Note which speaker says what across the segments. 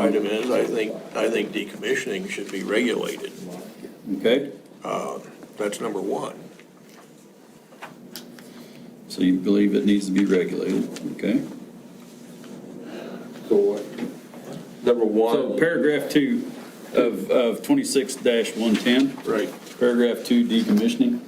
Speaker 1: item is, I think, I think decommissioning should be regulated.
Speaker 2: Okay,
Speaker 1: That's number one.
Speaker 2: so you believe it needs to be regulated, okay?
Speaker 3: So what? Number
Speaker 2: So
Speaker 3: one,
Speaker 2: paragraph two of, of twenty-six one-ten,
Speaker 1: Right.
Speaker 2: paragraph two decommissioning,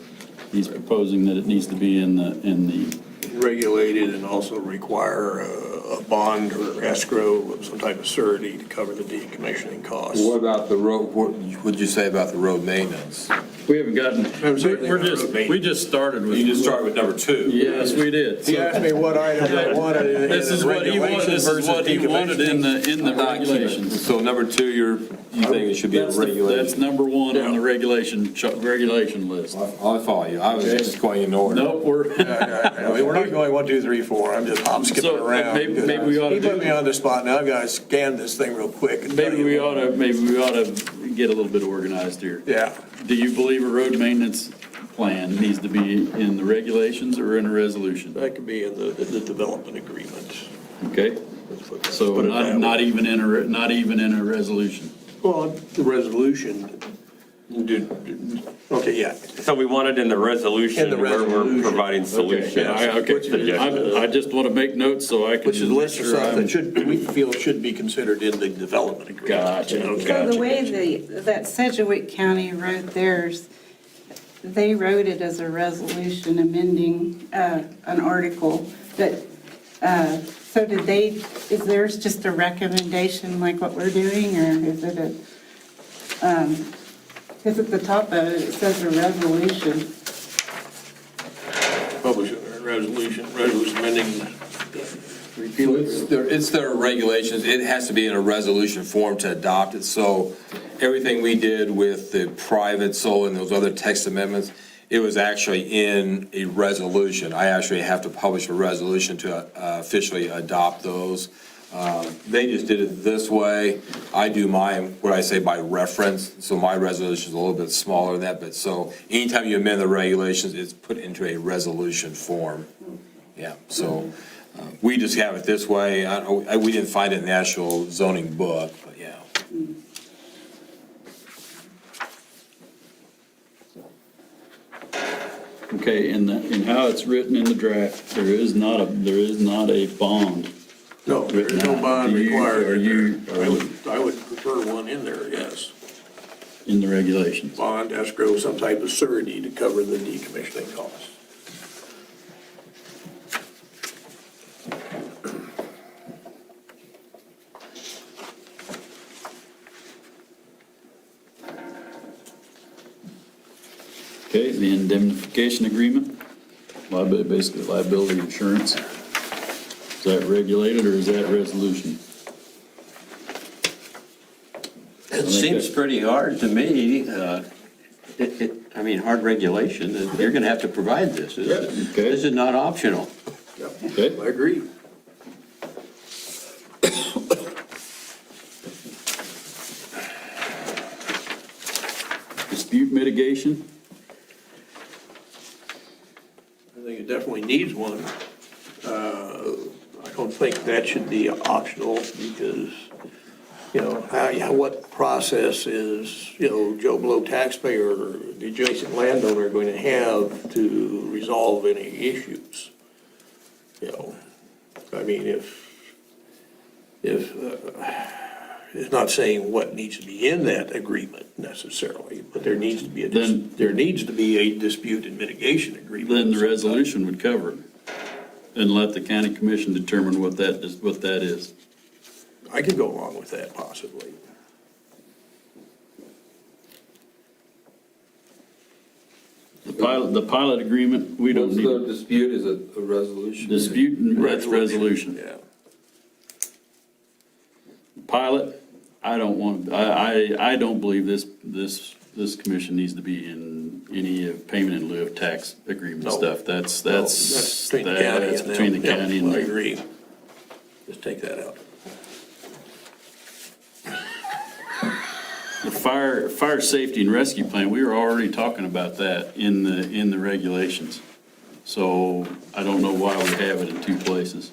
Speaker 2: he's proposing that it needs to be in the, in the,
Speaker 1: Regulated and also require a, a bond or escrow of some type of surety to cover the decommissioning costs.
Speaker 3: what about the road, what would you say about the road maintenance?
Speaker 2: we haven't gotten,
Speaker 1: I'm sorry, they
Speaker 2: we're just,
Speaker 1: wrote me.
Speaker 2: we just started with.
Speaker 4: You just start with number two.
Speaker 2: Yes, we did.
Speaker 1: He
Speaker 2: So
Speaker 1: asked me what item I wanted in in
Speaker 2: This is
Speaker 1: the
Speaker 2: what he wanted,
Speaker 1: regulations
Speaker 2: this is
Speaker 1: versus
Speaker 2: what he wanted in
Speaker 1: decommissioning.
Speaker 2: the, in the regulations.
Speaker 3: So number two, you're, you think it should be a
Speaker 2: That's, the- that's
Speaker 3: regulation?
Speaker 2: number one on
Speaker 1: Yeah.
Speaker 2: the regulation, ch- regulation list.
Speaker 3: I I follow you, I was just going in order.
Speaker 2: Nope, we're,
Speaker 1: I mean, we're not going one, two, three, four, I'm just hop skipping
Speaker 2: So,
Speaker 1: around.
Speaker 2: maybe- maybe we ought to
Speaker 1: He put
Speaker 2: do-
Speaker 1: me on the spot, now I've got to scan this thing real quick. and tell
Speaker 2: maybe
Speaker 1: you
Speaker 2: we
Speaker 1: what-
Speaker 2: ought to, maybe we ought to get a little bit organized here.
Speaker 1: Yeah,
Speaker 2: Do you believe a road maintenance plan needs to be in the regulations or in a resolution?
Speaker 1: that could be in the, the development agreement.
Speaker 2: Okay,
Speaker 1: Let's put that-
Speaker 2: so
Speaker 1: put it
Speaker 2: not,
Speaker 1: that
Speaker 2: not
Speaker 1: way.
Speaker 2: even in a, re- not even in a resolution.
Speaker 1: Well, the resolution, okay, yeah,
Speaker 5: So we want it in the resolution
Speaker 1: In the
Speaker 5: where we're
Speaker 1: resolution.
Speaker 5: providing
Speaker 2: Okay,
Speaker 5: solutions.
Speaker 2: I,
Speaker 1: Which is-
Speaker 2: okay, I, I just want to make notes so I can.
Speaker 1: which is a
Speaker 2: make
Speaker 1: list of
Speaker 2: sure
Speaker 1: stuff
Speaker 2: I'm-
Speaker 1: that should, we feel should be considered in the development agreement.
Speaker 2: Um, Gotcha,
Speaker 1: Okay.
Speaker 2: gotcha.
Speaker 6: So the way the, that Sedgwick County wrote theirs, they wrote it as a resolution amending uh, an article, but, uh, so did they, is theirs just a recommendation like what we're doing, or is it a, because at the top of it, it says a resolution.
Speaker 1: Publish a resolution, resolution amending.
Speaker 3: So It's their, it's their regulations, it has to be in a resolution form to adopt it, so everything we did with the private soul and those other text amendments, it was actually in a resolution. I actually have to publish a resolution to uh, officially adopt those. Uh, They just did it this way, I do mine, what I say by reference, so my resolution is a little bit smaller than that, but so anytime you amend the regulations, it's put into a resolution form. Yeah, so uh, we just have it this way. I, don't- I- we didn't find it in the actual zoning book, but yeah.
Speaker 2: Okay, in the, in how it's written in the draft, there is not a, there is not a bond.
Speaker 1: No, there is no
Speaker 2: Written out.
Speaker 1: bond
Speaker 2: Do you-
Speaker 1: required.
Speaker 2: are you- um,
Speaker 1: I would, I would prefer one in there, yes.
Speaker 2: in the regulations.
Speaker 1: Bond, escrow, some type of surety to cover the decommissioning costs.
Speaker 2: Okay, the indemnification agreement, liability, basically liability insurance. Is that regulated or is that resolution?
Speaker 7: It seems pretty hard to me, uh, it, it, I mean, hard regulation, that you're gonna have to provide this. This is-
Speaker 2: Okay.
Speaker 7: this is not optional.
Speaker 2: Okay,
Speaker 1: I agree.
Speaker 2: dispute mitigation,
Speaker 1: I think it definitely needs one. Uh, I don't think that should be optional because, you know, how, yeah, what process is, you know, Joe Blow taxpayer or the adjacent landowner going to have to resolve any issues? You know, I mean, if, if, uh, it's not saying what needs to be in that agreement necessarily, but there needs to be a,
Speaker 2: Then-
Speaker 1: dis- there needs to be a dispute and mitigation agreement.
Speaker 2: then the resolution would cover it. And let the county commission determine what that is, what that is.
Speaker 1: I could go along with that possibly.
Speaker 2: The pilot, the pilot agreement, we don't need
Speaker 3: dispute is a resolution.
Speaker 2: dispute, and that's resolution.
Speaker 1: Yeah.
Speaker 2: Pilot, I don't want, I, I, I don't believe this, this, this commission needs to be in any of payment in lieu of tax agreement
Speaker 1: No.
Speaker 2: stuff. That's,
Speaker 1: Well,
Speaker 2: that's,
Speaker 1: between the county
Speaker 2: that's
Speaker 1: and them.
Speaker 2: between the
Speaker 1: Yeah,
Speaker 2: county
Speaker 1: I
Speaker 2: and.
Speaker 1: agree. Just take that out.
Speaker 2: The fire, fire safety and rescue plan, we were already talking about that in the, in the regulations. So I don't know why we have it in two places.